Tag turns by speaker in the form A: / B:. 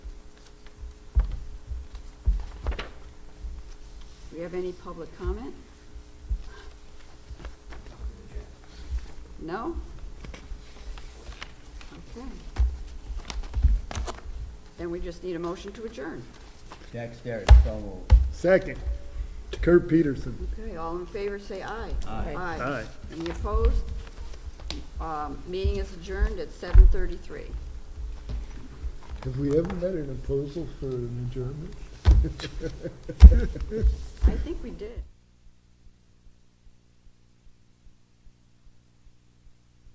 A: we have any public comment? No? Okay. Then we just need a motion to adjourn.
B: Jack Starrett, so moved.
C: Second, Kurt Peterson.
A: Okay, all in favor, say aye.
B: Aye.
C: Aye.
A: Any opposed? Um, Meeting is adjourned at seven thirty-three.
C: Have we ever met an proposal for an adjournment?
A: I think we did.